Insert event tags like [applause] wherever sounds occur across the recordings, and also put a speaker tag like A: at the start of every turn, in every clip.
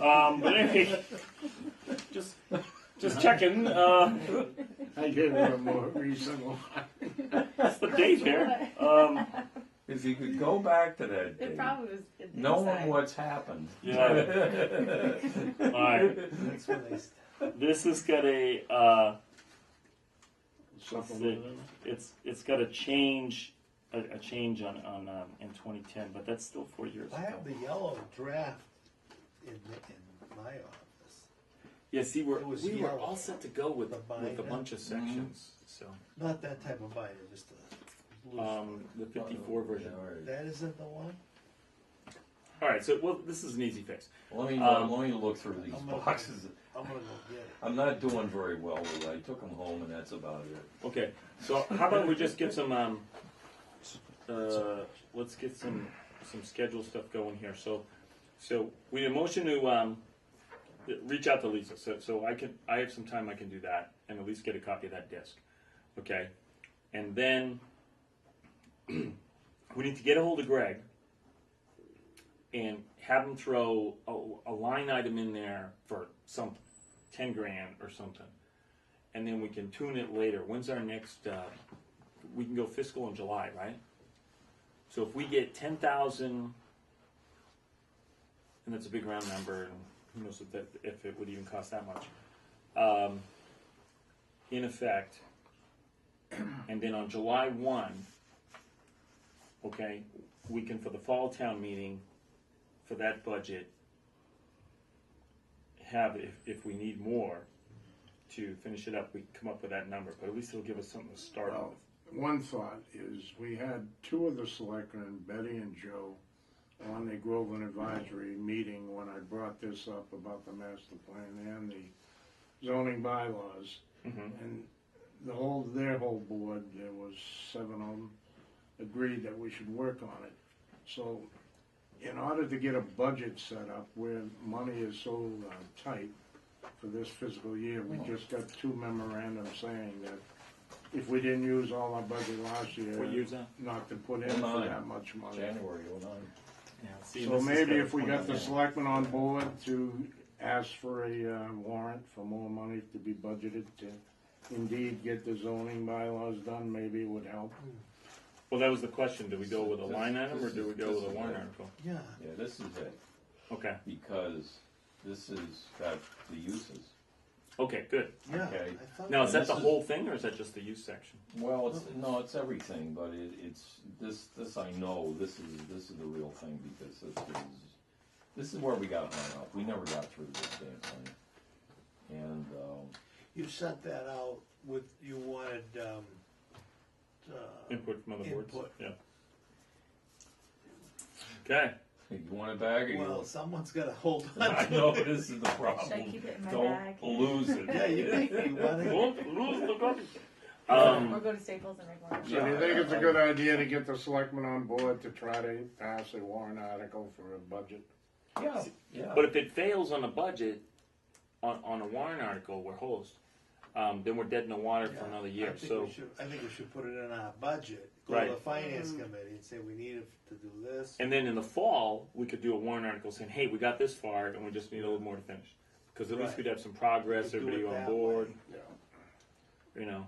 A: Um, but anyway, just just checking. Uh,
B: I did a little more reasonable.
A: that's the date here. Um,
C: If you could go back to that
D: [laughs] It
C: date,
D: probably was. it
C: knowing
D: inside.
C: what's happened.
A: all right.
E: That's when they st-
A: This has got a. Uh,
B: Supplemental.
A: it's it's got a change, a, a change on on um, in 2010, but that's still four years.
E: I
A: ago.
E: have the yellow draft in, in my office.
F: Yeah, see, we're,
E: It was
F: we were
E: yellow.
F: all set to go with,
E: The
F: with a
E: binder.
F: bunch of sections, so.
E: Not that type of binder, just a
A: Mm-hmm.
E: loose.
F: Um, the fifty-four version.
E: one. that isn't the one.
A: Alright, so well, this is an easy fix.
C: Let me
A: Um,
C: let me look through these
E: I'm gonna-
C: boxes.
E: I'm gonna go get it.
C: I'm not doing very well with it. I took them home, and that's about it.
A: Okay, so how about we just get some, um, uh, let's get some, some schedule stuff going here. So, so we had a motion to, um, reach out to Lisa, so, so I can, I have some time, I can do that, and at least get a copy of that disc, okay? And then, [clears throat] we need to get a hold of Greg and have him throw a, a line item in there for some, ten grand or something and then we can tune it later. When's our next, uh, we can go fiscal in July, right? So if we get ten thousand, and that's a big round number, and who knows if that, if it would even cost that much. Um, in effect, and then on July one, okay, we can, for the fall town meeting, for that budget, have, if, if we need more, to finish it up, we come up with that number, but at least it'll give us something to start
B: Well,
A: with.
B: One thought is, we had two of the selectmen, Betty and Joe, on the Groveland Advisory meeting when I brought this up about the master plan and the zoning bylaws. And the whole, their whole board, there was seven of them, agreed that we should work on it. So in order to get a budget set up where money is so uh, tight for this fiscal year, we just got two memorandums saying that if we didn't use all our budget last year.
A: What year's that?
B: Not to put in
C: Nine.
B: for that much money.
C: January 09.
A: Yeah, see,
B: So
A: this is
B: maybe
A: kinda
B: if we got the
A: pointless.
B: selectmen on board to ask for a uh, warrant for more money to be budgeted to indeed get the zoning bylaws done, maybe it would help.
A: Well, that was the question, do we go with a line item or do we go
C: This
A: with
C: is-
A: a warrant
C: this is-
A: article?
E: Yeah.
C: Yeah, this is it
A: Okay,
C: because this has got the uses.
A: okay, good.
E: Yeah.
C: Okay.
E: I thought
A: Now, is that
C: This
A: the
C: is-
A: whole thing or is that just the youth section?
C: Well, it's, no, it's everything, but it, it's this. This I know. This is this is the real thing because this is this is where we got hung up. We never got through this damn thing, and um, [laughs]
E: you sent that out with you wanted um, uh,
A: Input from other boards?
E: Input.
A: Yeah. Okay,
C: you want it back? Or you
E: well,
C: want,
E: someone's got to hold on.
C: I know this is the problem.
D: Should I keep it in my
C: Don't
D: bag?
C: lose it.
E: yeah, you, you want to.
A: Lose- lose the garbage.
D: Or
A: Um,
D: go to Staples and make one.
B: So do you
C: Yeah,
B: think
C: I-
B: it's a
C: I-
B: good idea to get the selectmen on board to try to pass a warrant article for a budget?
C: Yeah, yeah.
A: but if it fails on the budget, on, on a warrant article, we're hosed. Um, then we're dead in the water for another
E: I
A: year,
E: think
A: so,
E: we should, I think we should put it in our budget. Go
A: Right.
E: to the finance committee and say we need it to do this.
A: and then in the fall, we could do a warrant article saying, hey, we got this far and we just need a little more to finish. Cause at least
E: Right.
A: we'd have some progress,
E: We could do
A: everybody
E: it
A: on
E: that
A: board,
E: way.
B: Yeah.
A: you know.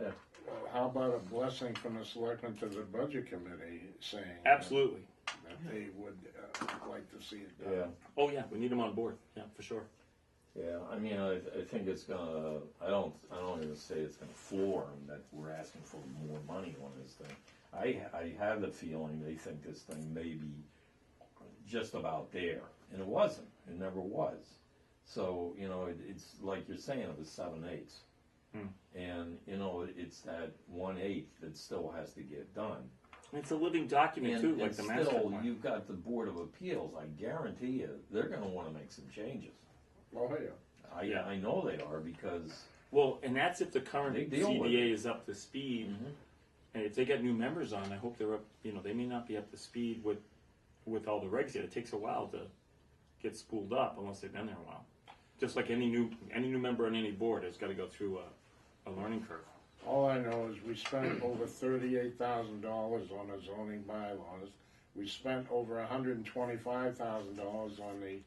C: yeah.
B: Well, How about a blessing from the selectmen to the budget committee saying? that-
A: Absolutely.
B: That they would uh, like to see it
C: yeah.
B: done.
A: Oh, yeah, we need them on board, yeah, for sure.
C: Yeah, I mean, I, I think it's gonna, I don't, I don't even say it's gonna floor them that we're asking for more money on this thing. I, I have the feeling they think this thing may be just about there, and it wasn't, it never was. So, you know, it, it's like you're saying, it was seven eighths. And, you know, it's that one eighth that still has to get done.
A: It's a living document
C: And,
A: too,
C: and
A: like the master
C: still,
A: plan.
C: you've got the Board of Appeals, I guarantee you, they're gonna wanna make some changes.
B: Oh, yeah.
C: I,
A: Yeah.
C: I know they are because
A: Well, and that's if the current
C: They deal with Mm-hmm.
A: CDA is up to speed, and if they got new members on, I hope they're up. You know, they may not be up to speed with with all the regs yet. It takes a while to get spooled up unless they've been there a while. Just like any new any new member on any board has got to go through a, a learning curve.
B: All I know is we spent over thirty-eight thousand dollars on the zoning bylaws. We spent over hundred and twenty-five thousand dollars on the